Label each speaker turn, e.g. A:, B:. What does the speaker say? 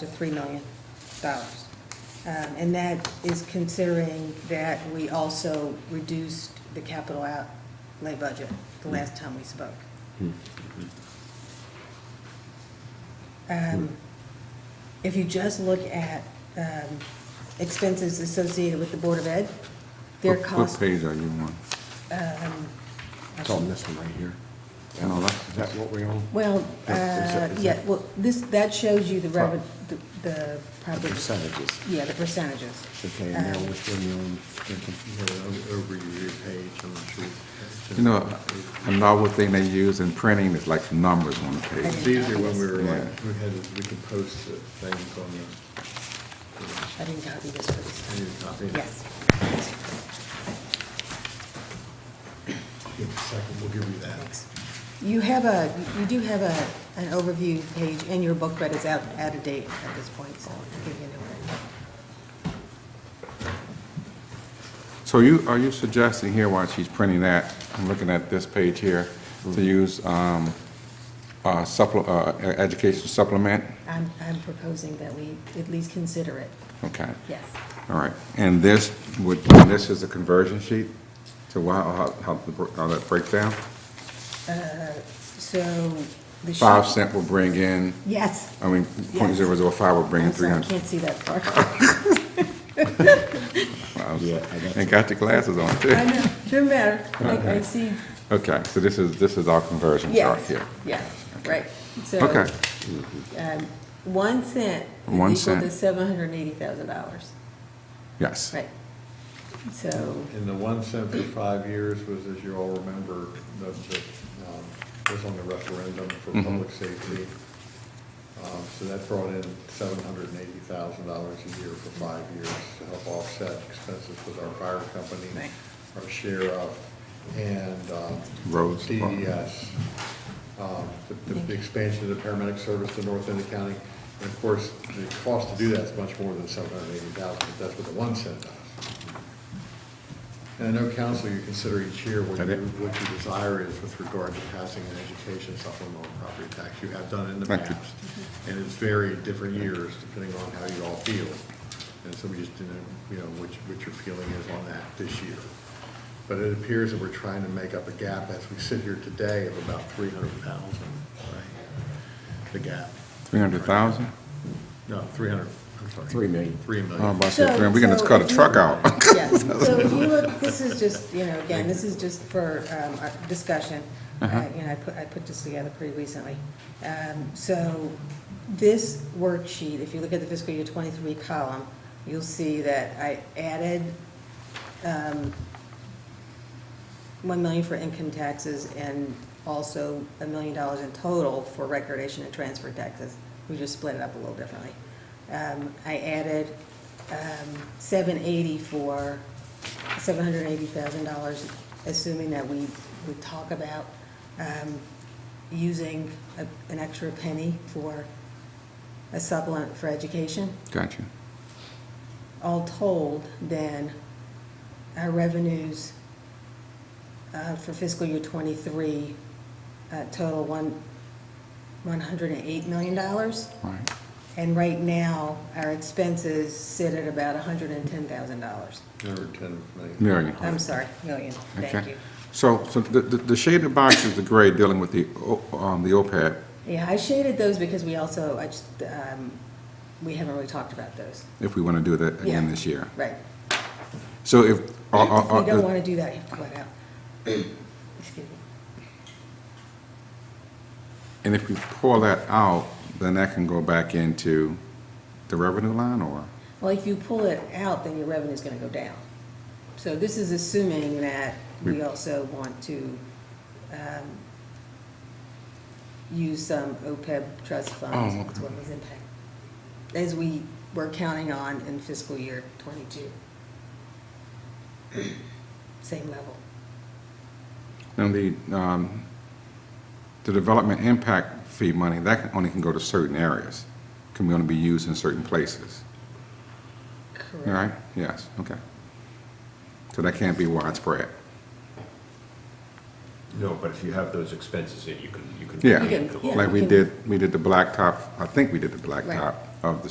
A: to $3 million. Um, And that is considering that we also reduced the capital outlay budget the last time we spoke. Um, If you just look at um, expenses associated with the Board of Ed, their
B: Oh,
C: What-
A: cost.
C: What page are you on?
A: I
B: It's on
A: should-
B: this one right here.
C: And all that?
B: Is that what we're on?
A: Well,
B: Oh, Is
A: uh,
B: that- is
A: yeah,
B: that-
A: well, this, that shows you the
B: Pro-
A: revenue, the
B: The
A: property.
B: percentages.
A: Yeah, the percentages.
B: Okay, and now
A: Um,
B: which one you on?
D: Yeah, o- over your page, I'm not sure.
C: You know, a novel thing they use in printing is like numbers on the
D: It's
C: page.
D: easier when we were like,
C: Yeah.
D: we had, we could post the things on the.
A: I didn't copy this for this
D: I
A: time.
D: need a copy.
A: Yes.
D: Give us a second, we'll give you that.
A: Thanks. You have a, you do have a, an overview page in your book, but it's out, out of date at this point, so I'll give you a new one.
C: So you, are you suggesting here while she's printing that, I'm looking at this page here, to use um, uh, supple, uh, e- education supplement?
A: I'm, I'm proposing that we at least consider it,
C: Okay,
A: yes.
C: all right. And this would, and this is a conversion sheet to wha- how, how, the br- how that breaks down?
A: So the.
C: Five
A: shop-
C: cent will bring in,
A: Yes.
C: I mean, point
A: Yes.
C: zero zero five will bring in
A: I'm
C: three
A: sorry, I
C: hundred.
A: can't see that far.
B: Yeah, I got
C: And got your glasses on too.
A: I know, doesn't matter, like, I see,
C: Okay, so this is, this is our conversion chart
A: yes,
C: here.
A: yeah, right. So,
C: Okay,
A: um, One cent is equal
C: One
A: to
C: cent.
A: seven hundred and eighty thousand dollars,
C: yes.
A: right? So.
D: And the one cent for five years was, as you all remember, that, that, um, was on the referendum for
A: Mm-hmm.
D: public safety. Um, so that brought in seven hundred and eighty thousand dollars a year for five years to help offset expenses with our fire company,
A: Right.
D: our sheriff, and, um.
C: Roads department.
D: DES, um, the,
A: Thank
D: the
A: you.
D: expansion of the paramedic service to North End County. And of course, the cost to do that is much more than seven hundred and eighty thousand, but that's what the one cent does. And I know council, you consider each year what
C: That
D: you,
C: it?
D: what your desire is with regard to passing an education supplemental property tax. You have done it in the
C: Thank you.
D: past, and it's very different years depending on how you all feel. And so we just didn't, you know, what, you- what your feeling is on that this year. But it appears that we're trying to make up a gap as we sit here today of about three hundred thousand, right? The gap.
C: 300,000?
D: No, three hundred, I'm sorry.
B: Three million.
D: Three
C: Oh, I'm
D: million.
C: about to say,
A: So-
C: man, we're gonna
A: so
C: cut a
A: if you-
C: truck out.
A: Yes, so if you look, this is just, you know, again, this is just for um, our discussion. Uh,
C: Uh-huh.
A: You know, I put, I put this together pretty recently. Um, So this worksheet, if you look at the fiscal year twenty-three column, you'll see that I added um, one million for income taxes and also a million dollars in total for recordation and transfer taxes. We just split it up a little differently. Um, I added, um, seven eighty for, seven hundred and eighty thousand dollars, assuming that we would talk about, um, using a- an extra penny for a supplement for education
C: Got you.
A: all told, then our revenues uh, for fiscal year '23 total one, $108 million.
C: All right.
A: And right now, our expenses sit at about $110,000.
D: Over ten million.
C: Million.
A: I'm sorry, million, thank
C: Okay.
A: you.
C: So, so the, the the shaded box is the gray dealing with the, O- um, the OPEB.
A: Yeah, I shaded those because we also, I just, um, we haven't really talked about those.
C: if we wanna do that again
A: Yeah,
C: this year.
A: Right.
C: So if, uh, uh,
A: If
C: uh,
A: we don't want to do that, you have to pull it out. Excuse me.
C: and if we pull that out, then that can go back into the revenue line or?
A: Well, if you pull it out, then your revenue's gonna go down. So this is assuming that we
C: We-
A: also want to um, use some OPEB trust funds,
C: Oh,
A: that's what was impact, as we were counting on in fiscal year twenty-two. Same level.
C: And the, um, the development impact fee money, that can- only can go to certain areas, can only be used in certain places, all right? Yes, okay. So that can't be widespread.
E: No, but if you have those expenses in, you can, you can.
C: Yeah,
A: You can- yeah.
C: like we did, we did the blacktop, I think we did the blacktop of the